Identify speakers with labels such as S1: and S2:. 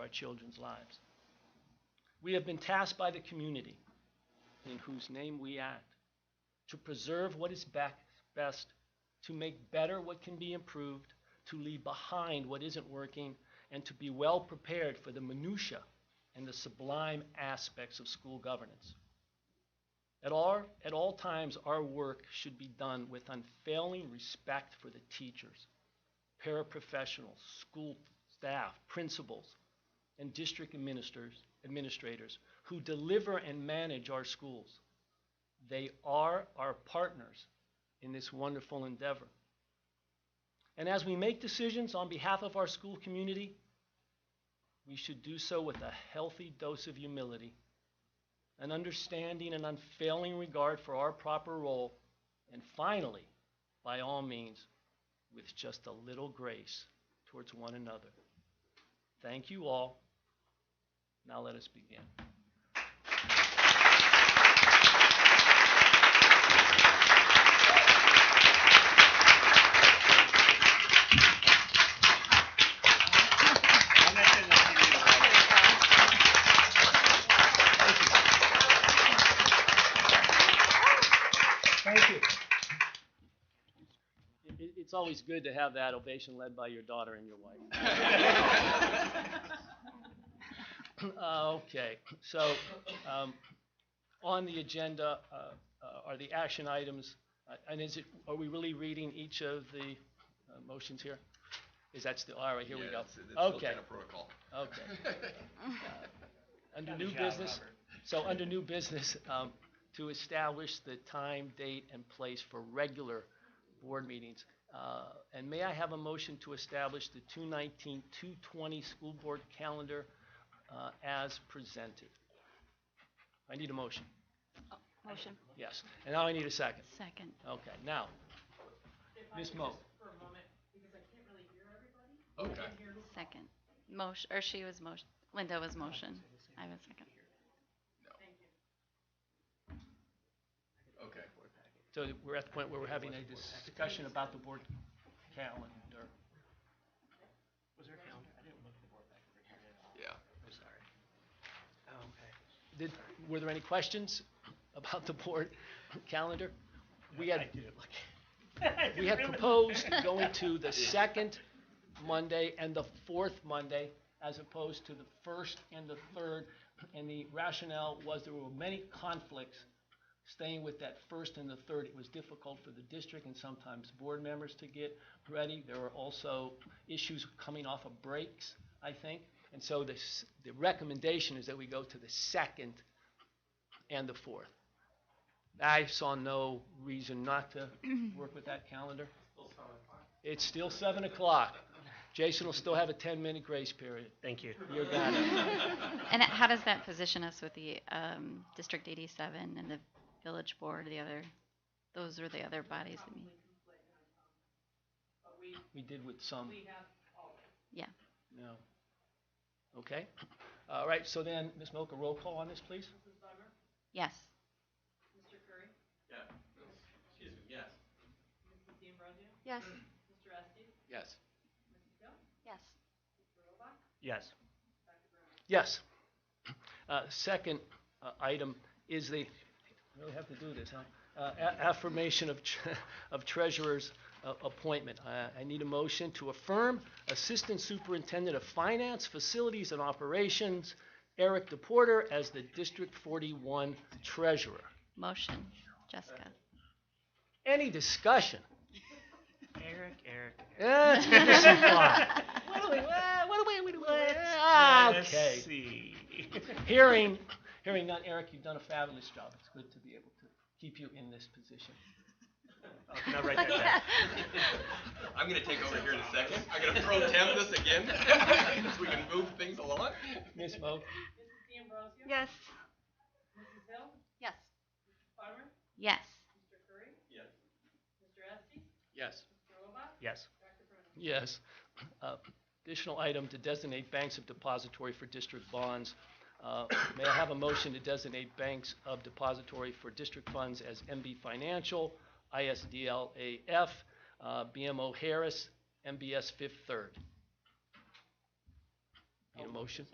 S1: our children's lives. We have been tasked by the community, in whose name we act, to preserve what is bec- best, to make better what can be improved, to leave behind what isn't working, and to be well prepared for the minutia and the sublime aspects of school governance. At all, at all times, our work should be done with unfailing respect for the teachers, paraprofessionals, school staff, principals, and district administrators, administrators who deliver and manage our schools. They are our partners in this wonderful endeavor. And as we make decisions on behalf of our school community, we should do so with a healthy dose of humility, an understanding and unfailing regard for our proper role, and finally, by all means, with just a little grace towards one another. Thank you all. Now let us begin. Thank you. It, it's always good to have that ovation led by your daughter and your wife. Uh, okay, so um, on the agenda uh, uh, are the action items, uh, and is it, are we really reading each of the uh, motions here? Is that's the, all right, here we
S2: Yeah,
S1: go.
S2: that's- that's still
S1: Okay,
S2: kind of protocol.
S1: okay. Under new business, so under new business, um, to establish the time, date, and place for regular board meetings. Uh, and may I have a motion to establish the 219, 220 school board calendar, uh, as presented? I need a motion,
S3: Motion.
S1: yes. And now I need a second.
S3: Second.
S1: Okay, now, Ms. Mo.
S2: Okay.
S3: Second. Motion, or she was motion, Linda was motion. I was second.
S2: Okay.
S1: So we're at the point where we're having a discussion about the board calendar.
S4: Was there a calendar? I didn't look at the board back over here at all.
S2: Yeah.
S4: I'm sorry. Oh, okay.
S1: Did, were there any questions about the board calendar? We had, we had proposed going to the second Monday and the fourth Monday as opposed to the first and the third. And the rationale was there were many conflicts staying with that first and the third. It was difficult for the district and sometimes board members to get ready. There were also issues coming off of breaks, I think. And so the, s- the recommendation is that we go to the second and the fourth. I saw no reason not to work with that calendar. It's still seven o'clock. Jason will still have a ten-minute grace period.
S4: Thank you.
S1: You're got it.
S3: And how does that position us with the um, District 87 and the Village Board, the other, those are the other bodies that meet?
S1: We did with some,
S3: Yeah.
S1: no. Okay. All right, so then, Ms. Mocha, roll call on this, please.
S3: Yes. Yes.
S1: Yes.
S3: Yes.
S4: Yes.
S1: Yes. Uh, Second uh, item is the, really have to do this, huh? Uh, a- Affirmation of tr- of treasurer's uh, appointment. Uh, I need a motion to affirm Assistant Superintendent of Finance, Facilities and Operations, Eric DePorter, as the District 41 Treasurer.
S3: Motion. Jessica.
S1: Any discussion?
S4: Eric, Eric.
S1: Eh, it's good to see Bob. What do we, eh, what do we- what do we, eh, ah,
S4: Let's
S1: okay.
S4: see.
S1: Hearing, hearing none, Eric, you've done a fabulous job. It's good to be able to keep you in this position.
S4: Oh, no, right there. yeah.
S2: I'm gonna take over here in a second. I'm gonna pro temp this again, so we can move things along.
S1: Ms. Moak?
S3: Yes. Yes.
S1: Yes.
S3: Yes.
S4: Yes.
S1: Yes. Uh, Additional item to designate banks of depository for district bonds. Uh, May I have a motion to designate banks of depository for district funds as MB Financial, ISDLAF, uh, BMO Harris, MBS Fifth Third?
S2: Need a motion?